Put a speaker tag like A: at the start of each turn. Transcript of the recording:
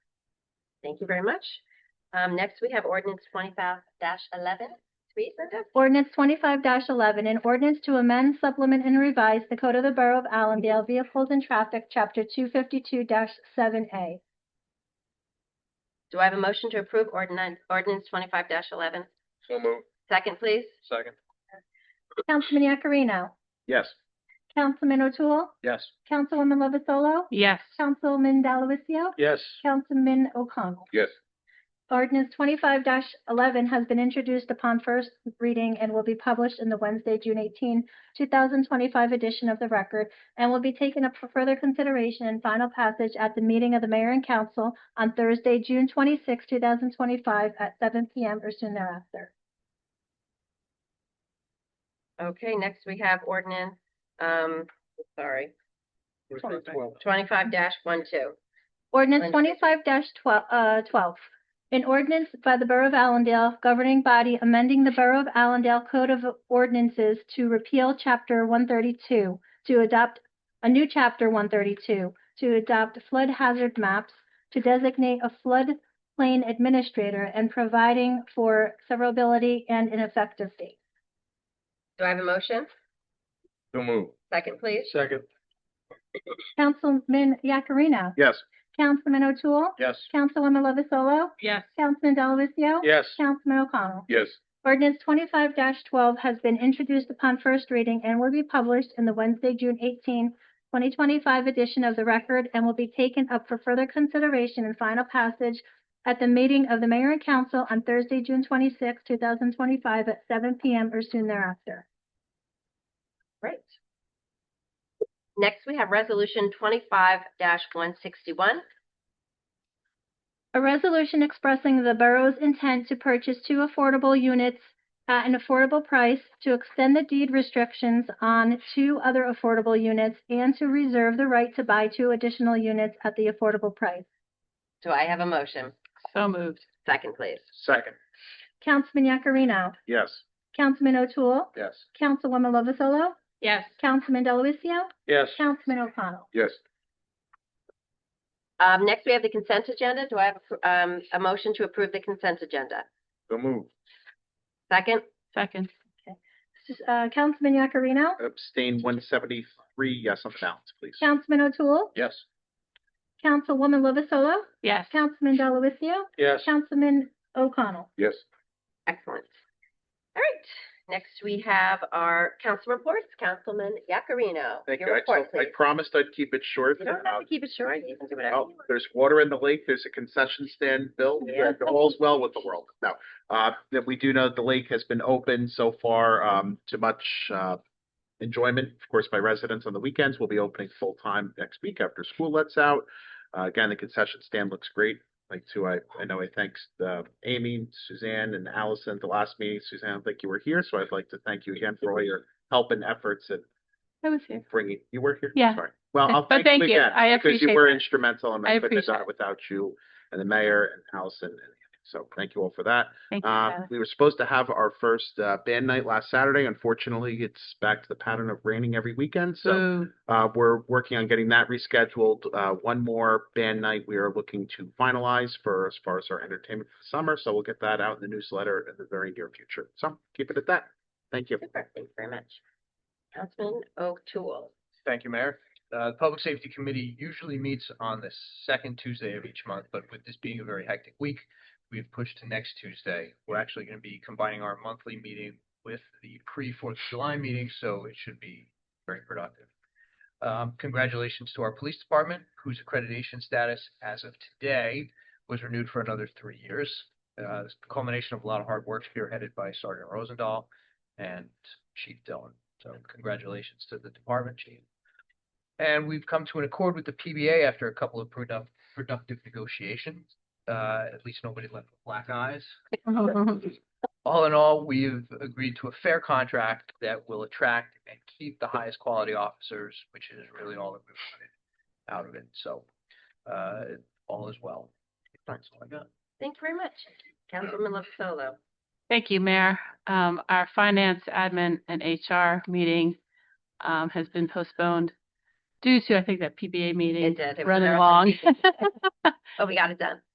A: Thank you very much. Um, next, we have ordinance twenty-five eleven. Read, Linda.
B: Ordinance twenty-five eleven, an ordinance to amend, supplement, and revise the Code of the Borough of Allendale Vehicles and Traffic, Chapter two fifty-two seven A.
A: Do I have a motion to approve ordinance, ordinance twenty-five eleven?
C: So moved.
A: Second, please.
C: Second.
B: Councilman Yakarino.
C: Yes.
B: Councilman O'Toole.
C: Yes.
B: Councilwoman Lovasolo.
D: yes,
B: Councilman Delavatio.
C: Yes.
B: Councilman O'Connell.
C: Yes.
B: Ordinance twenty-five eleven has been introduced upon first reading and will be published in the Wednesday, June 18, thousand twenty-five edition of the record and will be taken up for further consideration and final passage at the meeting of the mayor and council on Thursday, June 26, thousand twenty-five at seven P M or soon thereafter.
A: Okay, next we have ordinance, um, sorry, twenty-five one two.
B: Ordinance
A: Thank
B: twenty-five twelve, uh, twelve. An ordinance by the Borough of Allendale governing body amending the Borough of Allendale Code of Ordinances to repeal chapter one thirty-two, to adopt a new chapter one thirty-two, to adopt flood hazard maps, to designate a floodplain administrator and providing for severability and an effective date.
A: Do I have a motion?
C: So moved.
A: Second, please.
C: Second.
B: Councilman Yakarino.
C: Yes.
B: Councilman O'Toole.
C: Yes.
B: Councilwoman Lovasolo.
D: yes,
B: Councilman Delavatio.
C: Yes.
B: Councilman O'Connell.
C: Yes.
B: Ordinance twenty-five twelve has been introduced upon first reading and will be published in the Wednesday, June 18, twenty twenty-five edition of the record and will be taken up for further consideration and final passage at the meeting of the mayor and council on Thursday, June 26, thousand twenty-five at seven P M or soon thereafter.
A: Great. Next, we have resolution twenty-five one sixty-one.
B: A resolution expressing the borough's intent to purchase two affordable units at an affordable price to extend the deed restrictions on two other affordable units and to reserve the right to buy two additional units at the affordable price.
A: Do I have a motion?
D: so moved,
A: Second, please.
C: Second.
B: Councilman Yakarino.
C: Yes.
B: Councilman O'Toole.
C: Yes.
B: Councilwoman Lovasolo.
D: yes,
B: Councilman Delavatio.
C: Yes.
B: Councilman O'Connell.
C: Yes.
A: Um, next, we have the consent agenda. Do I have, a pr- um, a motion to approve the consent agenda?
C: So moved.
A: Second,
D: second,
B: Uh, Councilman Yakarino.
C: Abstain one seventy-three, yes on the balance, please.
B: Councilman O'Toole.
C: Yes.
B: Councilwoman Lovasolo.
D: yes,
B: Councilman Delavatio.
C: Yes.
B: Councilman O'Connell.
C: Yes.
A: excellent. All right, next we have our council reports. Councilman Yakarino.
C: Thank
A: your
C: you. I
A: report,
C: told- I
A: please.
C: promised I'd keep it short. Uh,
A: You don't have to keep it short. You can do whatever you
C: Oh,
A: want.
C: there's water in the lake, there's a concession stand built,
A: Yeah.
C: and all's well with the world. No, uh, that we do know the lake has been open so far, um, to much, uh, enjoyment. Of course, by residents on the weekends, we'll be opening full-time next week after school lets out. Uh, again, the concession stand looks great. Like too, I, I know I thanked, uh, Amy, Suzanne and Allison at the last meeting. Suzanne, I don't think you were here, so I'd like to thank you again for all your help and efforts at
D: I was here.
C: bringing, you were here?
D: Yeah.
C: Sorry. Well, I'll
D: But
C: thank
D: thank
C: you
D: you.
C: again.
D: I
C: Because you
D: appreciate
C: were
D: that.
C: instrumental and
D: I
C: I couldn't have done
D: appreciate
C: it without you and the mayor and Allison. and So thank you all for that.
D: Thank you,
C: Um,
D: Tyler.
C: we were supposed to have our first, uh, band night last Saturday. Unfortunately, it's back to the pattern of raining every weekend. So,
D: Boo.
C: uh, we're working on getting that rescheduled. Uh, one more band night we are looking to finalize for as far as our entertainment for the summer. So we'll get that out in the newsletter in the very near future. So keep it at that. Thank you.
A: Super, thank you very much. Councilman O'Toole.
E: Thank you, Mayor. Uh, The Public Safety Committee usually meets on the second Tuesday of each month, but with this being a very hectic week, we've pushed to next Tuesday. We're actually going to be combining our monthly meeting with the pre-Fourth of July meeting, so it should be very productive. Um, Congratulations to our police department, whose accreditation status as of today was renewed for another three years. Uh, it's the Culmination of a lot of hard work spearheaded by Sergeant Rosendahl and Chief Dillon. So congratulations to the department chief. And we've come to an accord with the PBA after a couple of product, productive negotiations. Uh, at least nobody left with black eyes. All in all, we've agreed to a fair contract that will attract and keep the highest quality officers, which is really all that we wanted out of it. So, uh, all is well. That's all I got.
A: Thank you very much. Councilman Lovasolo.
D: Thank you, Mayor. Um, our finance, admin, and HR meeting, um, has been postponed due to, I think, that PBA meeting
A: did. It was
D: running
A: marathon
D: long.
A: Oh, we got it done.